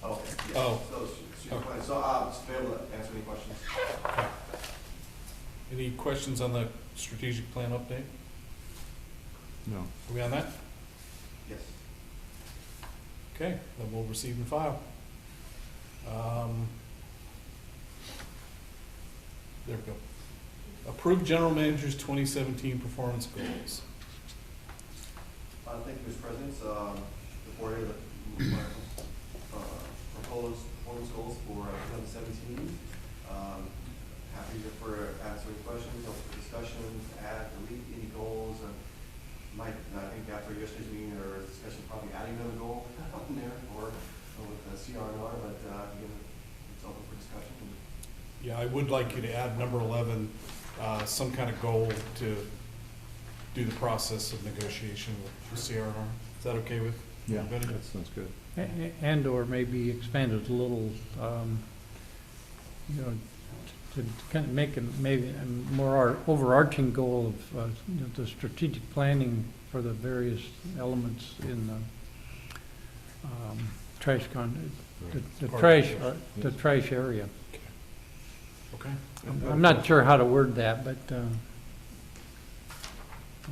Yeah, Oh. So, it's your point. so, uh, Mr. Mayor, will answer any questions? Any questions on the strategic plan update? No. Are we on that? Yes. Okay, then we'll receive and file. Um, There we go. Approved general manager's twenty seventeen performance goals. Uh, thank you, Mr. President, um, the board here, uh, proposed performance goals for two thousand seventeen. Um, happy to for answering questions, open for discussions, add, delete any goals, and Mike, I think after yesterday's meeting or discussion, probably adding another goal on there, or or with the CRNR, but, uh, again, it's open for discussion, and Yeah, I would like you to add number eleven, uh, some kind of goal to do the process of negotiation with CRNR. Is that okay with Yeah, everybody? that sounds good. A- a- And/or maybe expand it a little, um, you know, to kind of make a, maybe a more ar- overarching goal of, uh, you know, the strategic planning for the various elements in the um, trash con, the- the Part of trash, it. uh, the trash area. Okay. I'm I'm not sure how to word that, but, uh,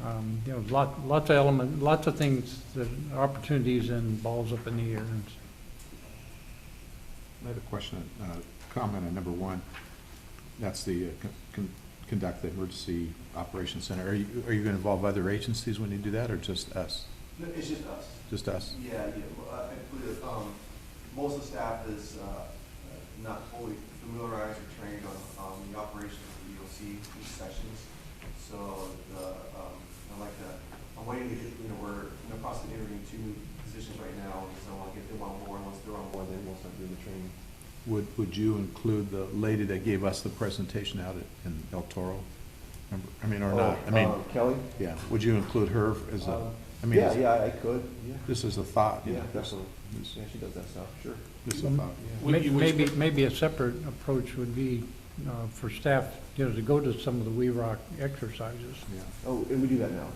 um, you know, lot, lots of element, lots of things, that opportunities and balls up in the air and s- I had a question, uh, comment on number one. That's the, uh, con- con- conduct the emergency operations center. Are you, are you gonna involve other agencies when you do that, or just us? No, it's just us. Just us? Yeah, yeah, well, I I believe, um, most of the staff is, uh, uh, not fully familiarized or trained on, um, the operations of the EOC, these sections. So, the, um, I like that, I'm waiting to get, you know, we're in the process of interviewing two positions right now, and so I'll get them on board, once they're on board, then we'll start doing the training. Would, would you include the lady that gave us the presentation out at- in El Toro? Remember- I mean, or Oh, not? I uh, mean, Kelly? yeah, would you include her as a, Um, I mean, Yeah, it's- yeah, I could, yeah. this is a thought, you Yeah, know, this definitely. this- Yeah, she does that stuff, sure. this is a thought. Would May- you- would you- Maybe, maybe a separate approach would be uh, for staff, you know, to go to some of the We Rock exercises. Yeah, Oh, and we do that now.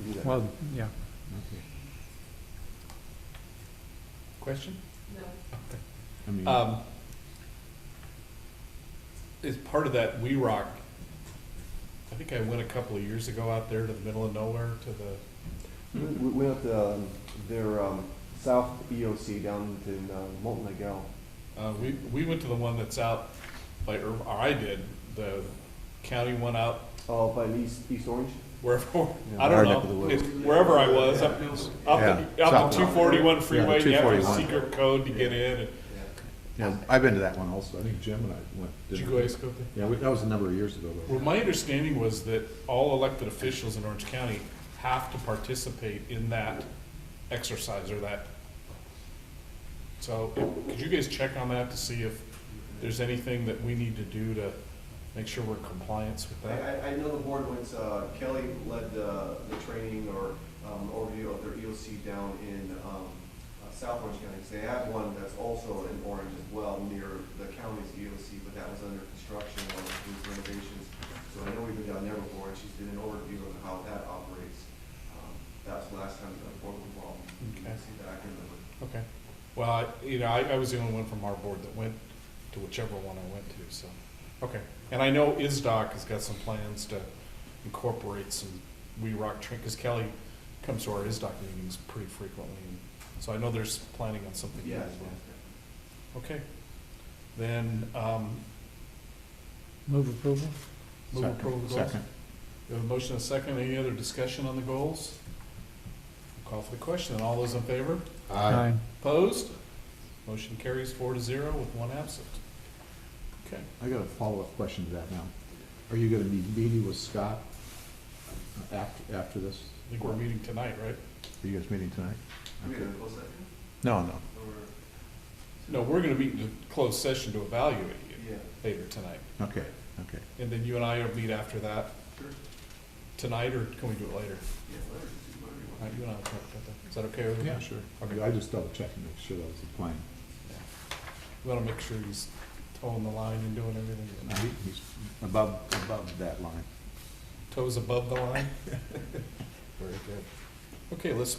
We do that. Well, yeah, okay. Question? I mean, Um, as part of that We Rock, I think I went a couple of years ago out there to the middle of nowhere to the, We, we went up to, um, their, um, south EOC down in, uh, Molten Lake Gal. uh, we, we went to the one that's out by, Ir- or I did, the county one out Oh, by East, East Orange? wherever, I Yeah, our don't neck of the know. woods. It's wherever I was, up, Yeah. up the, up the two forty-one freeway, you have a 241. secret code to get in. and- Yeah. yeah, I've been to that one also. I think Jim and I went. Did you didn't go we? ice scope there? Yeah, we- that was a number of years ago, though. Well, my understanding was that all elected officials in Orange County have to participate in that exercise or that. So, if- could you guys check on that to see if there's anything that we need to do to make sure we're in compliance with I, that? I, I know the board went, uh, Kelly led the, the training or, um, overview of their EOC down in, um, uh, South Orange County. 'cause They have one that's also in Orange as well, near the county's EOC, but that was under construction or these renovations. So I know we've been down there before, and she's did an overview of how that operates. Um, That was the last time the board was involved. You can Okay. See that I can remember. Okay, well, I- you know, I, I was the only one from our board that went to whichever one I went to, so, okay. And I know ISDOC has got some plans to incorporate some We Rock train, because Kelly comes to our ISDOC meetings pretty frequently, and so I know there's planning on something there Yeah. as well. Okay, then, um, move approval. move Second. approval of goals. Second. We have a motion and a second, any other discussion on the goals? Call for the question, all those in favor? Aye. Opposed? Motion carries four to zero with one absent. Okay. I got a follow-up question to that now. Are you gonna be meeting with Scott after, after this? I think we're meeting tonight, right? Are you guys meeting tonight? Are we Okay. gonna close that here? No, no. Or- No, we're gonna meet in a closed session to evaluate you Yeah. later tonight. Okay, okay. And then you and I will meet after that. Sure. Tonight, or can we do it later? Yeah, whatever, whatever you All want. right, you and I will talk about that. Is that okay with you? Yeah, sure. Okay. I just double checked and make sure that was the plan. We wanna make sure he's toeing the line and doing No, everything. he- He's above, above that line. Toes above the line? Very good. Okay, let's